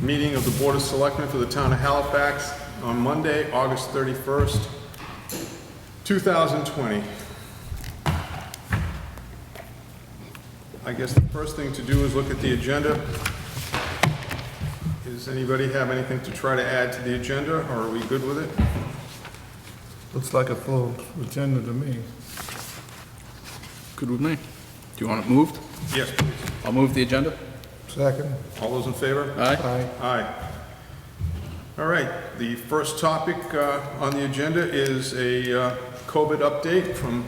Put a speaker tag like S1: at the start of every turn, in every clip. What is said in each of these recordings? S1: meeting of the Board of Selectmen for the Town of Halifax on Monday, August 31st, 2020. I guess the first thing to do is look at the agenda. Does anybody have anything to try to add to the agenda, or are we good with it?
S2: Looks like a full agenda to me.
S3: Good with me. Do you want it moved?
S1: Yes, please.
S3: I'll move the agenda.
S2: Second,
S1: All those in favor?
S3: Aye.
S2: aye.
S1: Aye. All right, the first topic uh, on the agenda is a uh, COVID update from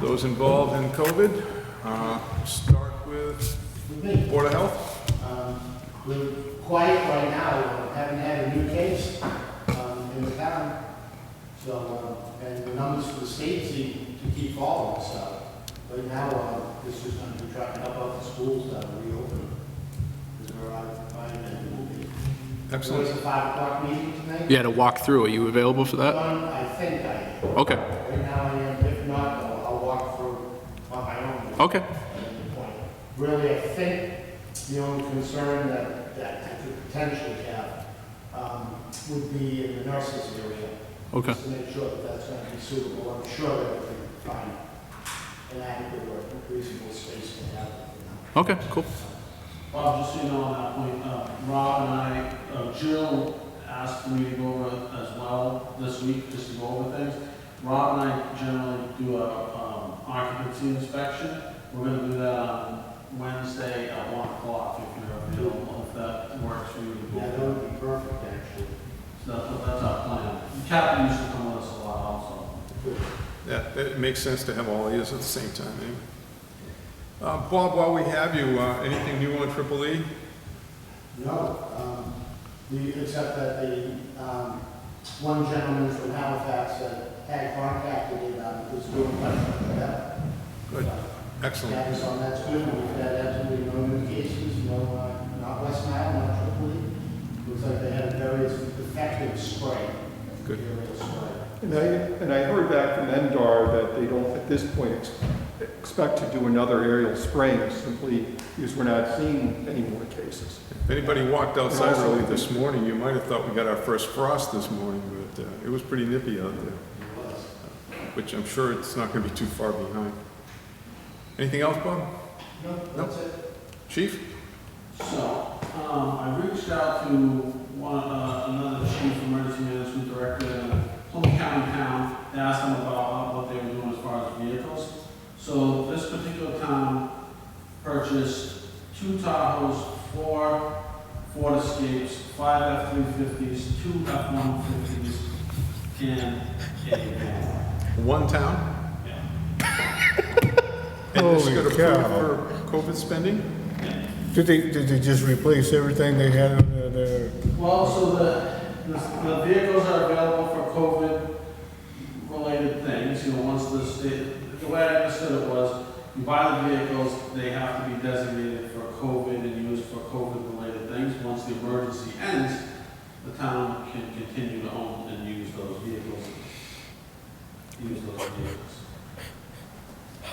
S1: those involved in COVID. Uh, Start with Board of Health.
S4: Um, We're quiet right now, we haven't had a new case um, in the town, so, uh, and the numbers for the state seem to keep falling, so. Right now, uh, this is going to be trying to help out the schools that are reopening, because we're out of time and moving. There was a
S1: Excellent.
S4: five o'clock meeting tonight.
S3: You had a walkthrough. Are you available for that?
S4: One, I think I,
S3: Okay,
S4: right now I am, if not, I'll I'll walk through on my own.
S3: okay.
S4: point. Really, I think the only concern that, that I could potentially have um, would be in the nurses area.
S3: Okay.
S4: Just to make sure that that's going to be suitable, I'm sure that we can find an adequate or reasonable space to have. it, you know.
S3: Okay, cool.
S5: Bob, just so you know on that point, uh, Rob and I, uh, Jill asked me to go over as well this week, just to go over things. Rob and I generally do a um, occupancy inspection. We're gonna do that on Wednesday at one o'clock if you're available, if that works for you.
S4: Yeah, that would be perfect, actually.
S5: So that's, that's our plan. Captain used to come with us a lot also.
S1: That, that makes sense to have all these at the same time, anyway. Uh, Bob, while we have you, uh, anything new on Triple E?
S4: No, um, the, except that the, um, one gentleman from Halifax that had contacted me about it was doing much better.
S1: Good, excellent.
S4: That is on that school, we've had absolutely no new cases, no, uh, not West Nile, not Tripoli. Looks like they had a very effective spray.
S1: Good.
S4: Aerial spray.
S6: And I, and I heard back from Endar that they don't, at this point, ex- expect to do another aerial spraying simply because we're not seeing any more cases.
S1: If anybody walked outside early this morning, you might have thought we got our first frost this morning, but uh, it was pretty nippy out there.
S4: It was.
S1: which I'm sure it's not going to be too far behind. Anything else, Bob?
S4: No, that's it.
S1: Chief?
S5: So, um, I reached out to one, uh, another chief emergency management director in Plymouth County town, to ask them about uh, what they were doing as far as vehicles. So this particular town purchased two Tahoes, four Ford Escapes, five F-350s, two F-150s, and a van.
S1: One town? And
S5: Yeah.
S1: this
S2: Holy
S1: got
S2: cow.
S1: approved for COVID spending?
S5: Yeah.
S2: Did they, did they just replace everything they had in their- their,
S5: Well, so the, the the vehicles are available for COVID-related things, you know, once the state, the way I understood it was, you buy the vehicles, they have to be designated for COVID and used for COVID-related things. Once the emergency ends, the town can continue to own and use those vehicles. Use those vehicles.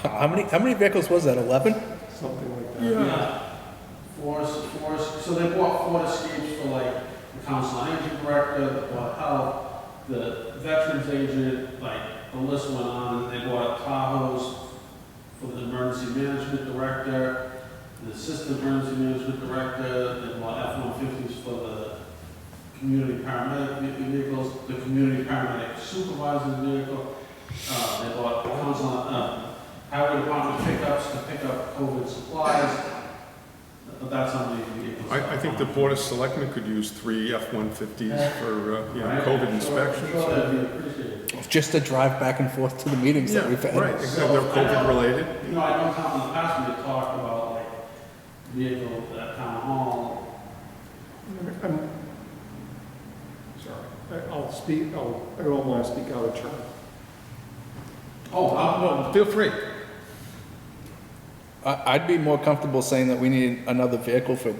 S7: How many, how many vehicles was that, 11?
S6: Something like that.
S5: Yeah. Forest, forest, so they bought four escapes for like the council on aging director, the board of health, the veterans agent, like the list went on, they bought Tahoes for the emergency management director, the assistant emergency management director, they bought F-150s for the community paramedic ve- vehicles, the community paramedic supervisor's vehicle, uh, they bought the council, on- uh, highway department pickups to pick up COVID supplies, but that's on the vehicles.
S1: I, I think the Board of Selectmen could use three F-150s for, uh, you know,
S5: Right?
S1: COVID
S5: I'm sure
S1: inspections.
S5: that'd be appreciated.
S7: Just to drive back and forth to the meetings
S1: Yeah,
S7: that we've had.
S1: right, exactly, they're COVID-related.
S5: You know, I know Tom in the past, we talked about like vehicle at town hall,
S6: I'm, sorry, I- I'll speak, I'll, I don't want to speak out of turn.
S5: oh, uh,
S1: Well, feel free.
S7: I- I'd be more comfortable saying that we need another vehicle for